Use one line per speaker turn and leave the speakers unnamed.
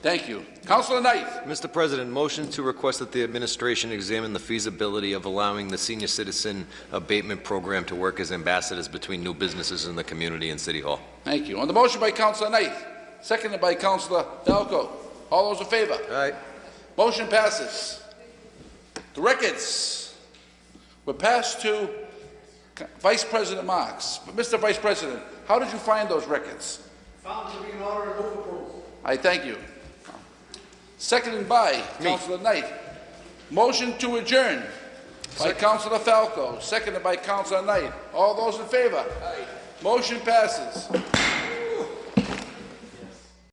Thank you. Councilor Knight,
Mr. President, motion to request that the administration examine the feasibility of allowing the senior citizen abatement program to work as ambassadors between new businesses in the community and City Hall.
thank you. On the motion by Councilor Knight, seconded by Councilor Falco. All those in favor?
All right.
Motion passes. The records were passed to Vice President Marks. But Mr. Vice President, how did you find those records?
Found to be in order and move approval.
I thank you. Seconded by Councilor Knight. Motion to adjourn by Councilor Falco, seconded by Councilor Knight. All those in favor? Motion passes.